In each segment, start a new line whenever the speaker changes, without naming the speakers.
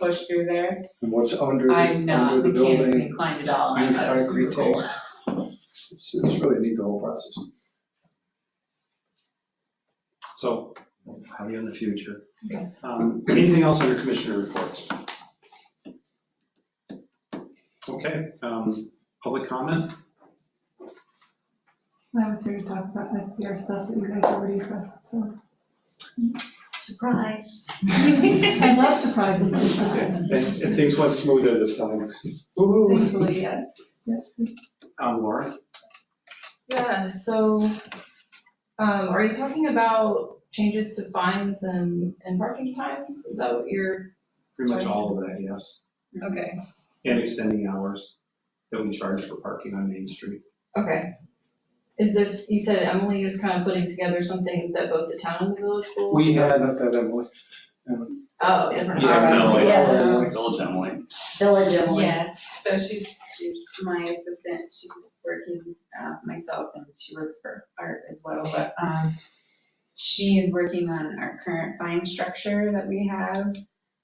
push through there.
And what's under, the-
I'm not
under the
mechanically
building,
inclined at all, I'm
new
not a
concrete
screw
tapes. It's, it's really neat, the whole process.
So, we'll have you in the future.
Okay.
Um, Anything else under commissioner reports? Okay, um, public comment?
I was here to talk about SDR stuff that you guys already addressed, so.
Surprise.
I love surprises like
Okay,
that.
And and things went smoother this time. Woo-hoo.
Thankfully, yeah.
Um, Laura?
Yeah, so, um, are you talking about changes to fines and, and parking times? Is that what you're,
Pretty much all of that, yes.
okay,
And extending hours that we charge for parking on Main Street.
okay. Is this, you said Emily is kind of putting together something that both the town and the village will?
We had,
Not that um, Emily.
Oh, different.
Yeah,
all right.
Emily.
Yeah.
Like Village Emily.
Village
door.
Emily.
Yes, so she's, she's my assistant, she's working, uh, myself, and she works for Art as well, but, um, she is working on our current fine structure that we have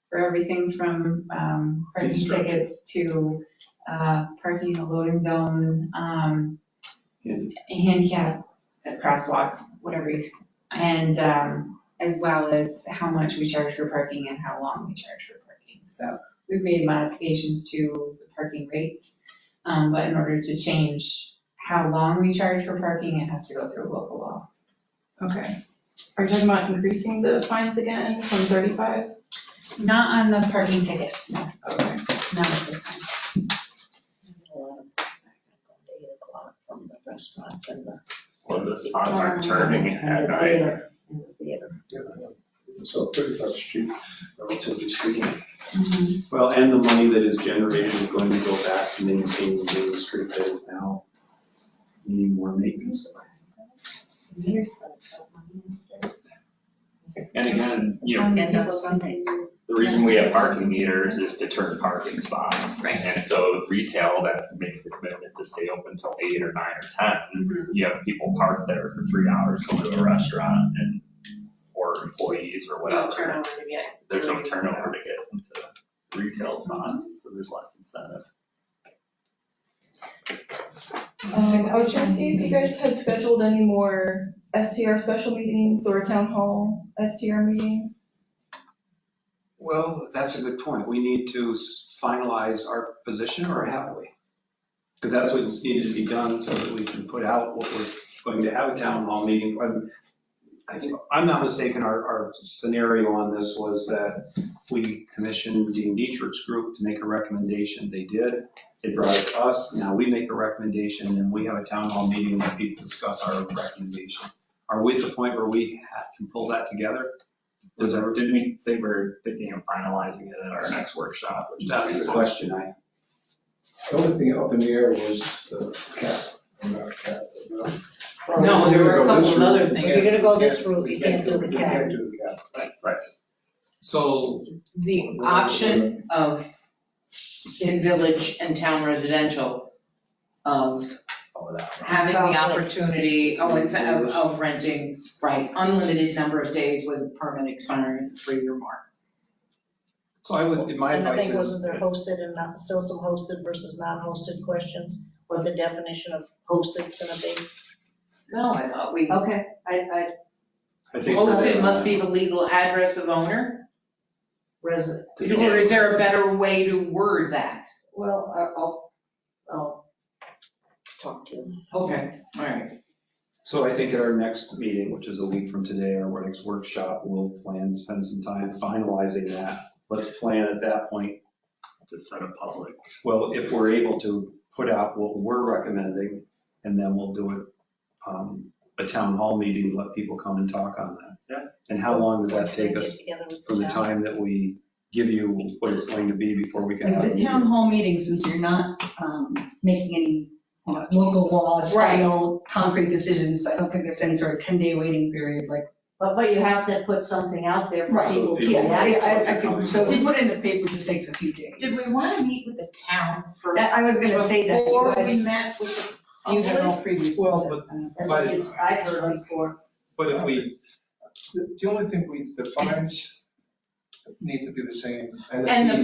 for everything from, um, parking
structure.
tickets to, uh, parking in a loading zone, um,
and
handicap crosswalks, whatever you, and um, as well as how much we charge for parking and how long we charge for parking. So we've made modifications to the parking rates, um, but in order to change how long we charge for parking, it has to go through local law.
Okay. Are you talking about increasing the fines again from thirty-five?
Not on the parking tickets, no,
Okay.
not at this time.
Eight o'clock From the restaurants and the.
Well, the spots
Um,
aren't turning
and
at
the
night.
theater, and the theater.
So thirty-five street, relatively speaking.
well, and the money that is generated is going to go back to maintaining Main Street that is now needing more maintenance.
Here's the-
And again, you
Um,
know,
And on Sunday.
the reason we have parking meters is to turn parking spots.
Right.
And so retail that makes the commitment to stay open till eight or nine or ten.
Mm-hmm.
You have people parked there for three hours, go to a restaurant and, or employees or whatever.
Turnover to get-
There's no turnover to get into retail spots, so there's less incentive.
Um, I was trying to see if you guys had scheduled any more STR special meetings or town hall STR meeting.
Well, that's a good point. We need to s- finalize our position or have we? Because that's what's needed to be done so that we can put out what we're going to have a town hall meeting. Um, I think, I'm not mistaken, our, our scenario on this was that we commissioned Dean Dietrich's group to make a recommendation. They did. They brought it to us. Now we make a recommendation and we have a town hall meeting where people discuss our recommendations. Are we at the point where we ha- can pull that together? Does
Was
everyone
there, didn't we say we're thinking of finalizing it at our next workshop? which is-
That's the question I,
The only thing up in the air was the cap, or not cap. but-
No,
there were a
Go this
couple of other
route.
things.
If you're gonna go this route, you can't do the
You
cap.
can't do the cap.
Right.
so,
The option of in village and town residential of
Oh, that one.
having the
Sounds like-
opportunity, oh, it's of, of renting, right, unlimited number of days with permit expiring at the three-year mark.
so I would, my
And I
advice
think wasn't
is,
there hosted and not, still some hosted versus non-hosted questions? What the definition of hosted's gonna be?
No, I thought we,
Okay, I, I,
I think.
hosted must be the legal address of owner,
resident,
or is there a better way to word that?
well, I- I'll, I'll talk to you.
Okay, all right.
So I think at our next meeting, which is a week from today, or our next workshop, we'll plan, to spend some time finalizing that. Let's plan at that point,
To set a public.
well, if we're able to put out what we're recommending, and then we'll do it, um, a town hall meeting, let people come and talk on that.
Yeah.
And how long would that
Get
take us
together with
from the
town.
time that we give you what it's going to be before we can have a
Like the
meeting?
town hall meeting, since you're not um, making any uh, local laws,
Right.
final concrete decisions, I don't think there's any sort of 10-day waiting period like.
But, but you have to put something out there for
Right.
people to
Yeah,
I-
react.
I- I could- So to put it in the paper just takes a few days.
Did we want to meet with the town first?
That- I was going to say that
Before we
because
met with the
you
public?
had all previous.
Well, but
That's what you, I heard before.
But if we,
The the only thing we, the fines,
needs to be the same.
And the-
the